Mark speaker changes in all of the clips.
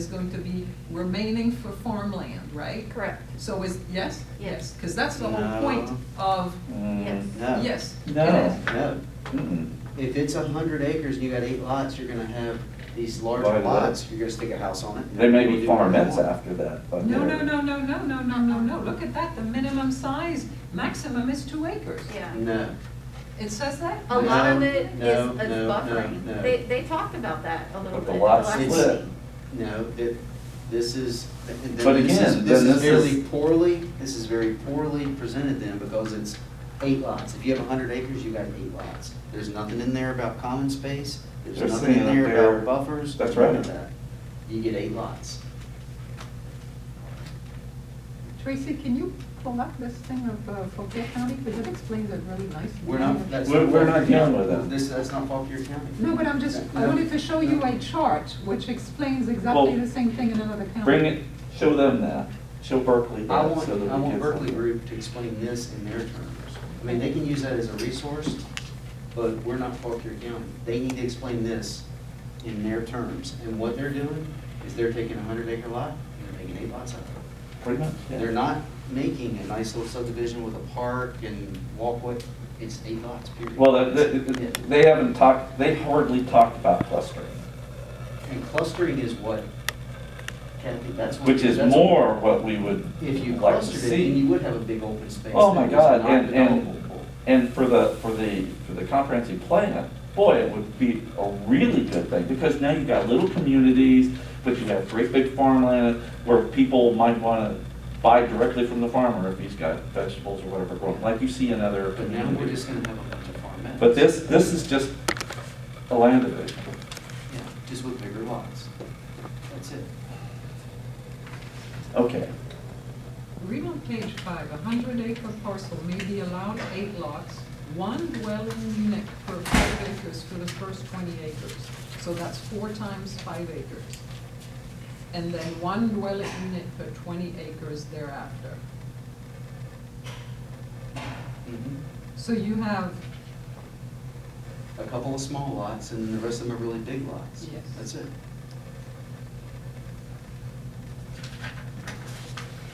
Speaker 1: is going to be remaining for farmland, right?
Speaker 2: Correct.
Speaker 1: So is, yes?
Speaker 2: Yes.
Speaker 1: Because that's the whole point
Speaker 3: No.
Speaker 1: of,
Speaker 2: Yes.
Speaker 3: No.
Speaker 1: yes. it
Speaker 4: No.
Speaker 1: is.
Speaker 3: No,
Speaker 4: Mm-mm.
Speaker 3: if it's a hundred acres and you got eight lots, you're gonna have these larger
Speaker 4: Large lot.
Speaker 3: lots, you're gonna stick a house on it.
Speaker 4: There may be
Speaker 3: You'll do what you
Speaker 4: farmettes
Speaker 3: want.
Speaker 4: after that, but.
Speaker 1: No, no,
Speaker 4: they're-
Speaker 1: no, no, no, no, no, no, no. Look at that, the minimum size, maximum is two acres.
Speaker 2: Yeah.
Speaker 3: No,
Speaker 1: It says that?
Speaker 2: A lot of
Speaker 3: No,
Speaker 2: it is,
Speaker 3: no,
Speaker 2: is
Speaker 3: no, no, no.
Speaker 2: buffering. They, they talked about that a little
Speaker 4: But the
Speaker 2: bit.
Speaker 4: lots
Speaker 2: last
Speaker 3: It's-
Speaker 4: split.
Speaker 2: meeting.
Speaker 3: no, it, this is, and
Speaker 4: But
Speaker 3: then this is,
Speaker 4: again,
Speaker 3: this
Speaker 4: then
Speaker 3: is
Speaker 4: this is-
Speaker 3: very poorly, this is very poorly presented then, because it's eight lots. If you have a hundred acres, you got eight lots. There's nothing in there about common space,
Speaker 4: They're
Speaker 3: there's nothing in
Speaker 4: saying that
Speaker 3: there
Speaker 4: they're-
Speaker 3: about buffers.
Speaker 4: That's
Speaker 3: none
Speaker 4: right.
Speaker 3: of that. You get eight lots.
Speaker 5: Tracy, can you pull up this thing of uh, Fauquier County, because it explains it really nicely.
Speaker 3: We're not, that's.
Speaker 4: We're- we're not dealing
Speaker 3: Fauquier-
Speaker 4: with that.
Speaker 3: This, that's not Fauquier County.
Speaker 5: No, but I'm just, I
Speaker 3: No,
Speaker 5: wanted to show you
Speaker 3: no.
Speaker 5: a chart which explains exactly the same thing in another county.
Speaker 4: Bring it, show them that, show Berkeley
Speaker 3: I
Speaker 4: that,
Speaker 3: want,
Speaker 4: so that we
Speaker 3: I
Speaker 4: can.
Speaker 3: want Berkeley Group to explain this in their terms. I mean, they can use that as a resource, but we're not Fauquier County. They need to explain this in their terms. And what they're doing is they're taking a hundred acre lot, and they're making eight lots out of it.
Speaker 4: Pretty much, yeah.
Speaker 3: They're not making a nice little subdivision with a park and walkway. It's eight lots, period.
Speaker 4: Well, that- that-
Speaker 3: Yeah.
Speaker 4: they haven't talked, they hardly talked about clustering,
Speaker 3: And clustering is what, Kathy, that's what.
Speaker 4: which is
Speaker 3: that's-
Speaker 4: more what we would
Speaker 3: If you
Speaker 4: like to
Speaker 3: clustered it, then you
Speaker 4: see.
Speaker 3: would have a big open space.
Speaker 4: Oh, my
Speaker 3: that was
Speaker 4: God,
Speaker 3: not
Speaker 4: and, and,
Speaker 3: developable.
Speaker 4: and for the, for the, for the comprehensive plan, boy, it would be a really good thing, because now you've got little communities, but you have great big farmland where people might wanna buy directly from the farmer if he's got vegetables or whatever growing, like you see in other
Speaker 3: But now we're just
Speaker 4: communities.
Speaker 3: gonna have a bunch of farm
Speaker 4: But this, this is just a land division.
Speaker 3: Yeah, just with bigger lots. That's it.
Speaker 4: Okay,
Speaker 1: Read on page five, a hundred acre parcel may be allowed eight lots, one dwelling unit per five acres for the first twenty acres. So that's four times five acres. And then one dwelling unit per twenty acres thereafter. So you have,
Speaker 3: A couple of small lots and the rest of them are really big lots.
Speaker 1: Yes.
Speaker 3: That's it.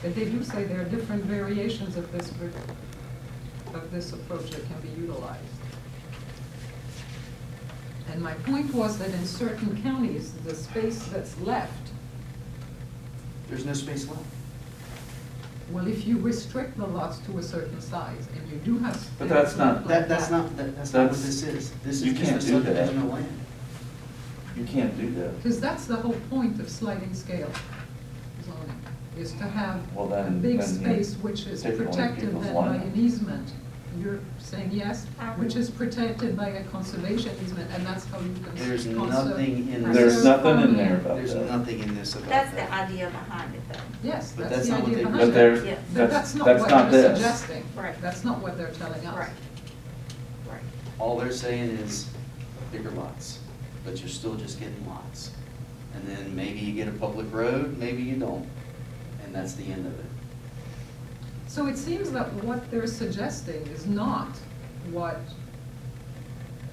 Speaker 1: but they do say there are different variations of this, ver- of this approach that can be utilized. And my point was that in certain counties, the space that's left
Speaker 3: There's no space left.
Speaker 1: Well, if you restrict the lots to a certain size, and you do have.
Speaker 4: But that's not-
Speaker 3: That, that's not, that- that's not what
Speaker 4: That's-
Speaker 3: this is. This
Speaker 4: you
Speaker 3: is just a
Speaker 4: can't do that.
Speaker 3: subdivision of land.
Speaker 4: you can't do that.
Speaker 1: Because that's the whole point of sliding scale zoning, is to have
Speaker 4: Well,
Speaker 1: a
Speaker 4: then-
Speaker 1: big
Speaker 4: then you
Speaker 1: space which is
Speaker 4: take away
Speaker 1: protected
Speaker 4: people's
Speaker 1: then by
Speaker 4: land.
Speaker 1: an easement. You're saying yes, which is protected by a conservation easement, and that's how you can.
Speaker 3: There's
Speaker 1: conserve-
Speaker 3: nothing in
Speaker 4: There's
Speaker 1: preserve
Speaker 4: nothing in there
Speaker 1: farmland.
Speaker 4: about
Speaker 3: There's
Speaker 4: that.
Speaker 3: nothing in this about
Speaker 2: That's the
Speaker 3: that.
Speaker 2: idea behind it though.
Speaker 1: Yes,
Speaker 3: But
Speaker 1: that's
Speaker 3: that's
Speaker 1: the
Speaker 3: not what
Speaker 1: idea
Speaker 3: they-
Speaker 1: behind it.
Speaker 4: But they're,
Speaker 2: Yeah.
Speaker 1: But
Speaker 4: that's,
Speaker 1: that's not
Speaker 4: that's not
Speaker 1: what they're
Speaker 4: this.
Speaker 1: suggesting.
Speaker 2: Right.
Speaker 1: That's not what they're telling us.
Speaker 2: Right. Right.
Speaker 3: All they're saying is bigger lots, but you're still just getting lots. And then maybe you get a public road, maybe you don't. And that's the end of it.
Speaker 1: So it seems that what they're suggesting is not what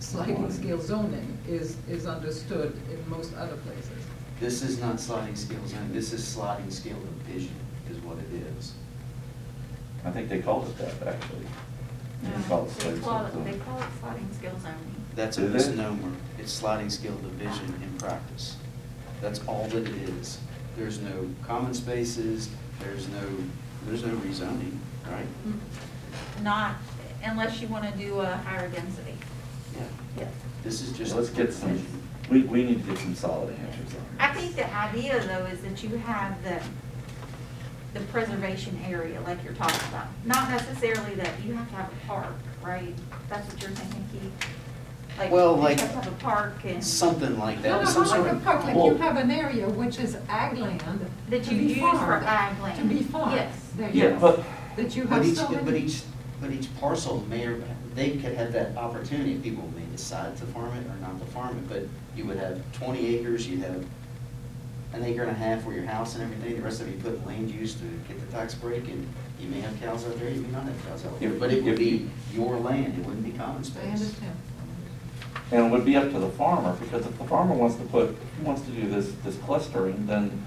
Speaker 1: sliding scale zoning is, is understood in most other places.
Speaker 3: This is not sliding scale zoning, this is sliding scale division is what it is.
Speaker 4: I think they called it that, actually. They
Speaker 2: No,
Speaker 4: called it
Speaker 2: Um, They
Speaker 4: slave
Speaker 2: call it,
Speaker 4: something.
Speaker 2: they call it sliding scale zoning.
Speaker 3: That's a
Speaker 4: Is it?
Speaker 3: misnomer. It's sliding scale division in practice. That's all that it is. There's no common spaces, there's no, there's no rezoning, right?
Speaker 2: Hmm. Not unless you want to do a higher density.
Speaker 3: Yeah.
Speaker 2: Yeah.
Speaker 3: This is just.
Speaker 4: Let's get some, we, we need to get some solid answers
Speaker 2: I
Speaker 4: on this.
Speaker 2: think the idea though is that you have the, the preservation area like you're talking about. Not necessarily that you have to have a park, right? That's what you're thinking, Keith? Like,
Speaker 3: Well,
Speaker 2: you
Speaker 3: like-
Speaker 2: have to have a park and.
Speaker 3: Something like
Speaker 1: No,
Speaker 3: that,
Speaker 1: no,
Speaker 3: some
Speaker 1: not
Speaker 3: sort
Speaker 1: like a
Speaker 3: of.
Speaker 1: park, like
Speaker 4: Well-
Speaker 1: you have an area which is ag land to
Speaker 2: That you
Speaker 1: be
Speaker 2: use for
Speaker 1: farmed,
Speaker 2: ag land.
Speaker 1: To be farmed.
Speaker 2: Yes.
Speaker 1: There you
Speaker 4: Yeah,
Speaker 1: go.
Speaker 4: but,
Speaker 1: That you
Speaker 3: But
Speaker 1: have
Speaker 3: each,
Speaker 1: so
Speaker 3: but
Speaker 1: many,
Speaker 3: each, but each parcel may, or they could have that opportunity, people may decide to farm it or not to farm it, but you would have twenty acres, you'd have an acre and a half for your house and everything, the rest of it you put in land use to get the tax break, and you may have cows out there, you may not have cows out there,
Speaker 4: If-
Speaker 3: but it would
Speaker 4: if
Speaker 3: be
Speaker 4: you-
Speaker 3: your land, it wouldn't be common
Speaker 1: I
Speaker 3: space.
Speaker 1: understand.
Speaker 4: And it would be up to the farmer, because if the farmer wants to put, if he wants to do this, this clustering, then